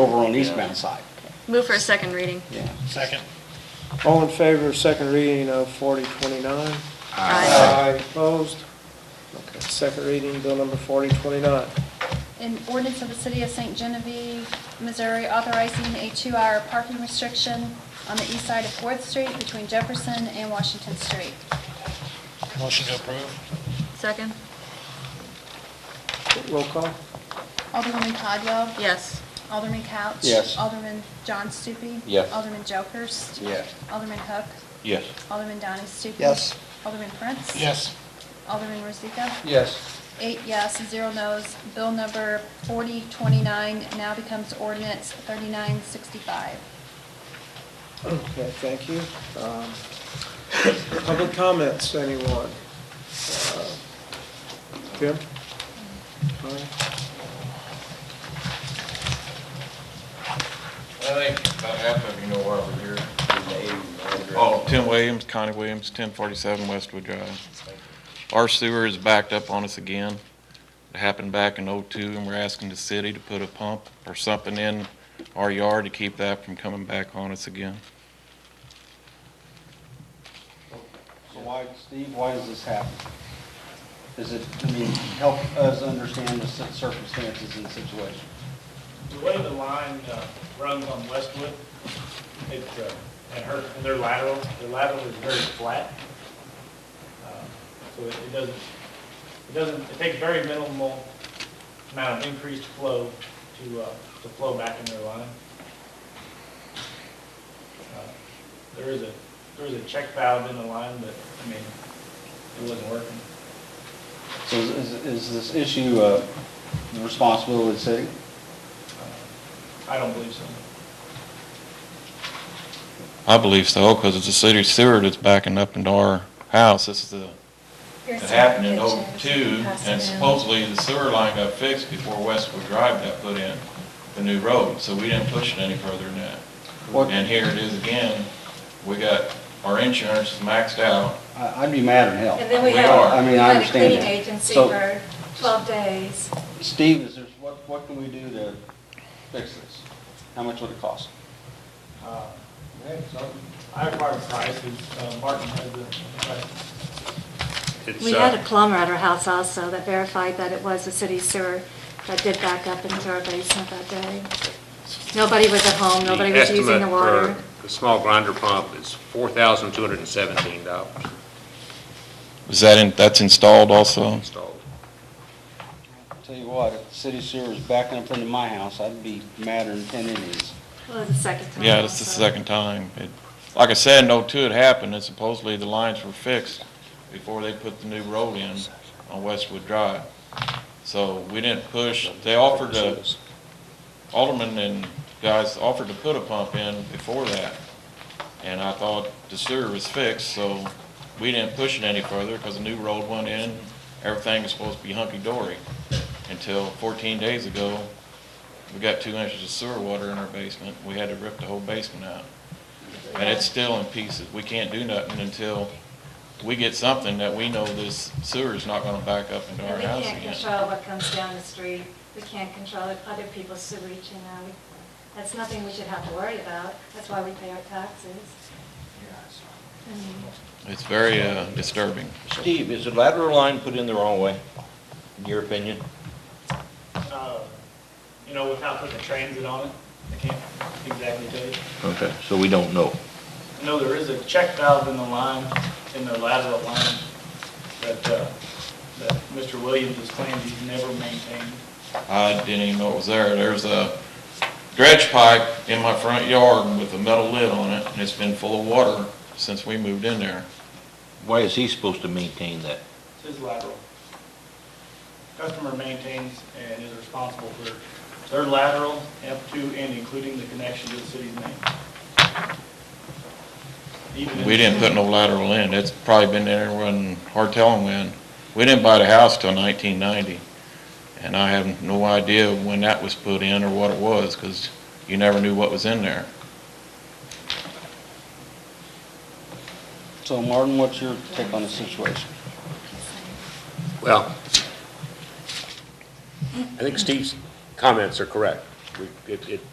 over on the eastbound side. Move for a second reading. Yeah. Second. All in favor of second reading of 4029? Aye. Uh, Opposed? Okay, second reading, bill number 4029. An ordinance of the City of St. Genevieve, Missouri authorizing a two-hour parking restriction on the east side of Fourth Street between Jefferson and Washington Street. Motion to approve. Second? Roll call? Alderwoman Codwell. Yes. Alderman Couch. Yes. Alderman John Stupi. Yes. Alderman Jokers. Yes. Alderman Hook. Yes. Alderman Donnie Stupi. Yes. Alderman Prince. Yes. Alderman Rozika. Yes. Eight yes, zero no's. Bill number 4029 now becomes ordinance 3965. Okay, thank you. Um, Public comments, anyone? Uh, Jim? All right. I think about half of you know why we're here. Oh, Tim Williams, Connie Williams, ten forty-seven Westwood Drive. Our sewer is backed up on us again. It happened back in oh-two, and we're asking the city to put a pump or something in our yard to keep that from coming back on us again. So why, Steve, why does this happen? Is it, I mean, help us understand the cir- circumstances and situation. The way the line uh, runs on Westwood, it, uh, and her, and their lateral, their lateral is very flat. Uh, So it it doesn't, it doesn't, it takes very minimal amount of increased flow to, uh, to flow back in their line. Uh, There is a, there is a check valve in the line, but, I mean, it wasn't working. So is, is- is this issue, uh, the responsibility of the city? Uh, I don't believe so. I believe so, because it's the city sewer that's backing up into our house. This is the, it happened in oh-two, and supposedly the sewer line got fixed before Westwood Drive got put in, the new road, so we didn't push it any further than that. What- And here it is again, we got, our insurance is maxed out, I, I'd be mad at hell. And then we We had, are. I mean, we I had a understand cleaning that. agency So- for 12 days. Steve, is there, what, what can we do to fix this? How much would it cost? Uh, I acquired prices, uh, Martin has the, price. We had a plumber at our house also that verified that it was the city sewer that did back up into our basement that day. Nobody was at home, nobody was using the water. The small grinder pump is $4,217 is that in, that's installed also? installed. Tell you what, if the city sewer was backing up into my house, I'd be madder than ten Indians. Well, it was the second time. Yeah, this is the also. second time. It- Like I said, no two it happened, and supposedly the lines were fixed before they put the new road in on Westwood Drive. So we didn't push, they offered to, Alderman and guys offered to put a pump in before that. And I thought the sewer was fixed, so we didn't push it any further because the new road went in. Everything was supposed to be hunky-dory until 14 days ago, we got two inches of sewer water in our basement. We had to rip the whole basement out. And it's still in pieces. We can't do nothing until we get something that we know this sewer is not gonna back up into our And we house can't again. control what comes down the street. We can't control it- other people's sewage and, uh, we- that's nothing we should have to worry about. That's why we pay our taxes. I mean, It's very uh, disturbing. Steve, is the lateral line put in the wrong way, in your opinion? uh, you know, without putting the transit on it, I can't exactly tell you. Okay, so we don't know. I know there is a check valve in the line, in the lateral line, that, uh, that Mr. Williams has claimed he's never maintained. I didn't even know it was there. There's a dredge pipe in my front yard with a metal lid on it, and it's been full of water since we moved in there. Why is he supposed to maintain that? It's his lateral. Customer maintains and is responsible for their lateral up to and including the connection to the city's name. Even in- We didn't put no lateral in. It's probably been there when, hard telling when. We didn't buy the house till nineteen ninety. And I have no idea when that was put in or what it was, because you never knew what was in there. So Martin, what's your take on the situation? Well, Mm. I think Steve's comments are correct. We- It, it